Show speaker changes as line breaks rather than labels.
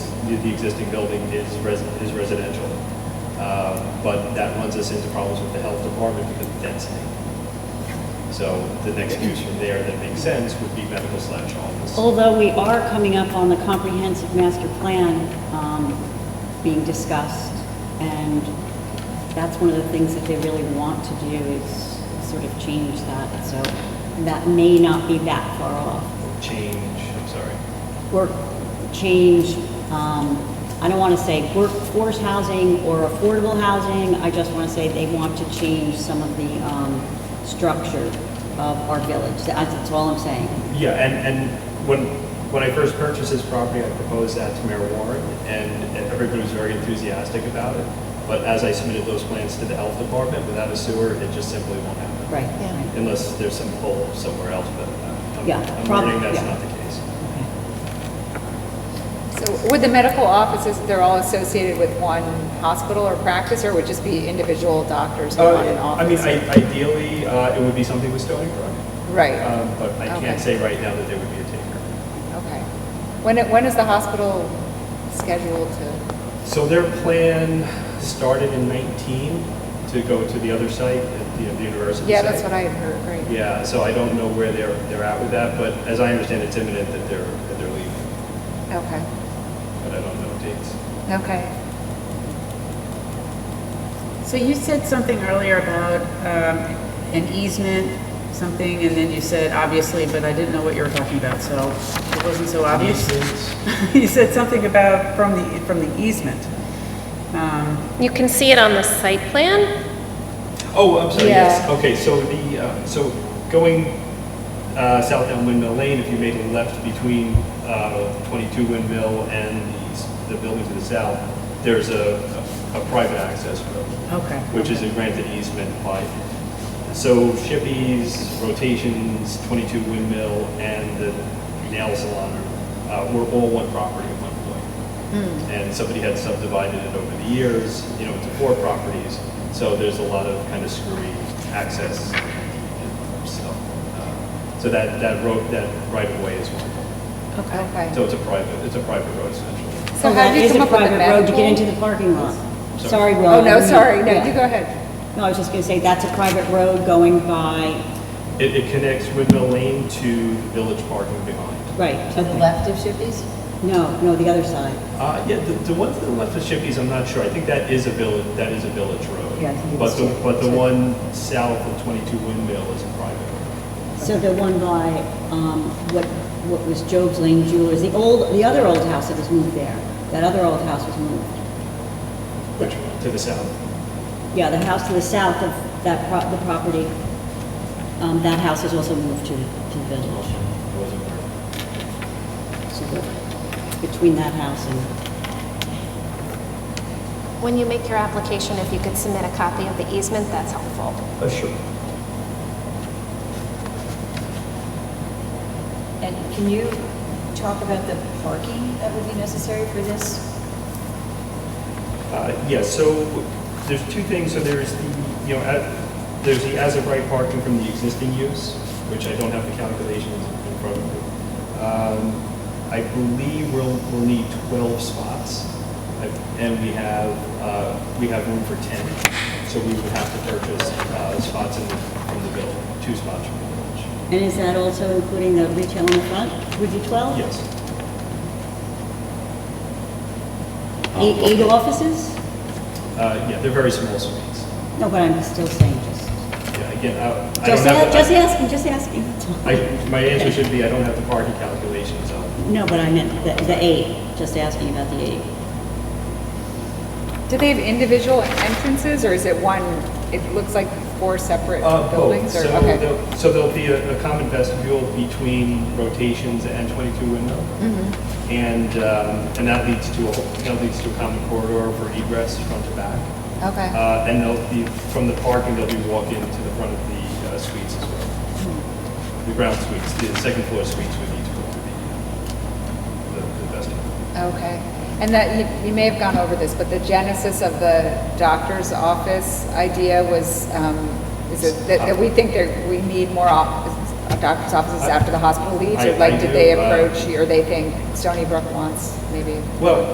the the existing building is resi- is residential. Um, But that runs us into problems with the health department because of density. So the next use from there that makes sense would be medical slash office.
Although we are coming up on the comprehensive master plan um, being discussed, and that's one of the things that they really want to do is sort of change that, so that may not be that far off.
Change, I'm sorry.
Work, change, um, I don't want to say workforce housing or affordable housing, I just want to say they want to change some of the um, structure of our village, that's that's all I'm saying.
Yeah, and, and when, when I first purchased this property, I proposed that to Mayor Warren, and everybody was very enthusiastic about it. But as I submitted those plans to the health department, without a sewer, it just simply won't happen.
Right.
Yeah.
right.
Unless there's some hole somewhere else, but uh,
Yeah,
I'm- I'm
prob-
learning that's
yeah.
not the case.
So would the medical offices, they're all associated with one hospital or practice, or would just be individual doctors who run an
Uh, I mean,
office?
I- ideally, uh, it would be something with Stony Brook,
Right,
um, but I
Okay.
can't say right now that there would be a taker.
okay. When, it- when is the hospital scheduled to,
So their plan started in 19 to go to the other site, at the the university site.
yeah, that's what I had heard, right?
Yeah, so I don't know where they're, they're at with that, but as I understand, it's imminent that they're, that they're leaving,
Okay,
but I don't know dates.
okay.
So you said something earlier about um, an easement, something, and then you said obviously, but I didn't know what you were talking about, so it wasn't so obvious. You said something about from the, from the easement. Um,
You can see it on the site plan.
Oh, I'm sorry, yes,
Yeah.
okay, so the, uh, so going uh, south down Windmill Lane, if you made a left between uh, 22 Windmill and the s- the building to the south, there's a, a a private access road.
Okay.
which is a granted easement by, so Shippey's, Rotations, 22 Windmill, and the nail salon uh, were all one property at one point. And somebody had subdivided it over the years, you know, into four properties, so there's a lot of kind of screwy access and stuff. Uh, So that, that road, that right-of-way is one,
Okay.
so it's a private, it's a private road essentially.
So how did you come up
Oh, That is a
with the
private road to get into
medical?
the parking lot.
Sorry.
Sorry, Will.
Oh, no, sorry, no,
Yeah.
you go ahead.
No, I was just going to say, that's a private road going by,
It, it connects Windmill Lane to the Village Parking behind.
right.
To the
okay.
left of Shippies?
No, no, the other side.
Uh, yeah, the, the one to the left of Shippies, I'm not sure. I think that is a village, that is a village road.
Yeah, I think it
But
is,
the,
yeah.
but the one south of 22 Windmill is a private road.
So the one by, um, what, what was Job's Lane Jewelers, the old, the other old house that was moved there. That other old house was moved.
Which one? To the south.
Yeah, the house to the south of that, pro- the property, um, that house is also moved to, to the village.
It wasn't there.
So the- Between that house and,
When you make your application, if you could submit a copy of the easement, that's helpful.
Oh, sure.
And can you talk about the parking that would be necessary for this?
Uh, Yeah, so there's two things, so there's the, you know, at- there's the as-of-right parking from the existing use, which I don't have the calculations in front of me. Um, I believe we'll, we'll need 12 spots, I- and we have, uh, we have room for 10, so we would have to purchase uh, spots in, the- from the village, two spots from the village.
and is that also including the retail in the front? Would be 12?
Yes.
Eight, eight E, offices?
Uh, Yeah, they're very small spaces.
No, but I'm still saying just,
Yeah, again, I I don't
just,
have.
a-
the-
just asking, just asking.
I, my answer should be, I don't have the parking calculations up.
No, but I meant the, the eight, just asking about the eight.
Do they have individual entrances, or is it one, it looks like four separate
Uh, both,
buildings?
so
or okay.
there'll, so there'll be a, a common vestibule between rotations and twenty-two window.
Mm-hmm.
And, um, and that leads to a, whole- that leads to a common corridor for egress front to back.
Okay.
Uh, and they'll be, from the parking, they'll be walking to the front of the uh, suites as well.
Mm-hmm.
The ground suites, the second floor suites would need to go to the, uh, the the vestibule.
Okay. And that, you, you may have gone over this, but the genesis of the doctor's office idea was, um, is it that, that we think that we need more office, doctor's offices after the hospital leaves?
I-
Or like,
I
did they
do, uh,
approach, you, or they think Stony Brook wants maybe?
Well,